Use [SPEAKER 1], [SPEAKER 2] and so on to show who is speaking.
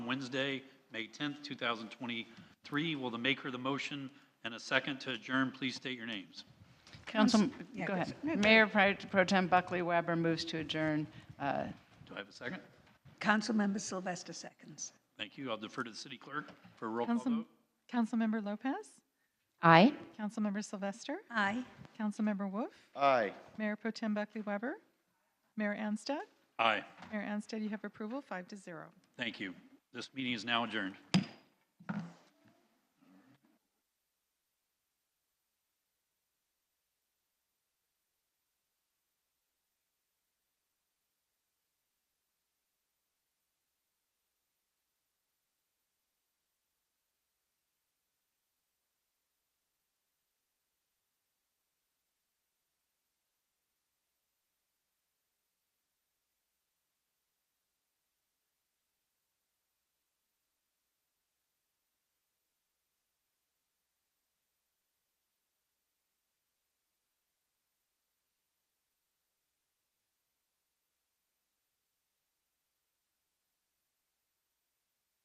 [SPEAKER 1] Wednesday, May 10th, 2023. Will the maker of the motion and a second to adjourn, please state your names.
[SPEAKER 2] Council,
[SPEAKER 3] yeah,
[SPEAKER 2] go
[SPEAKER 3] go-
[SPEAKER 2] ahead.
[SPEAKER 3] no, go
[SPEAKER 2] Mayor Pro Pro Tem Buckley Weber moves to adjourn. Uh,
[SPEAKER 1] Do I have a second?
[SPEAKER 3] Councilmember Sylvester seconds.
[SPEAKER 1] Thank you. I'll defer to the city clerk for a roll call
[SPEAKER 4] Council,
[SPEAKER 1] vote.
[SPEAKER 4] Councilmember Lopez,
[SPEAKER 5] Aye.
[SPEAKER 4] Councilmember Sylvester,
[SPEAKER 3] Aye.
[SPEAKER 4] Councilmember Wolf,
[SPEAKER 6] Aye.
[SPEAKER 4] Mayor Pro Tem Buckley Weber, Mayor Anstead.
[SPEAKER 1] Aye.
[SPEAKER 4] Mayor Anstead, you have approval, five to zero.
[SPEAKER 1] Thank you. This meeting is now adjourned.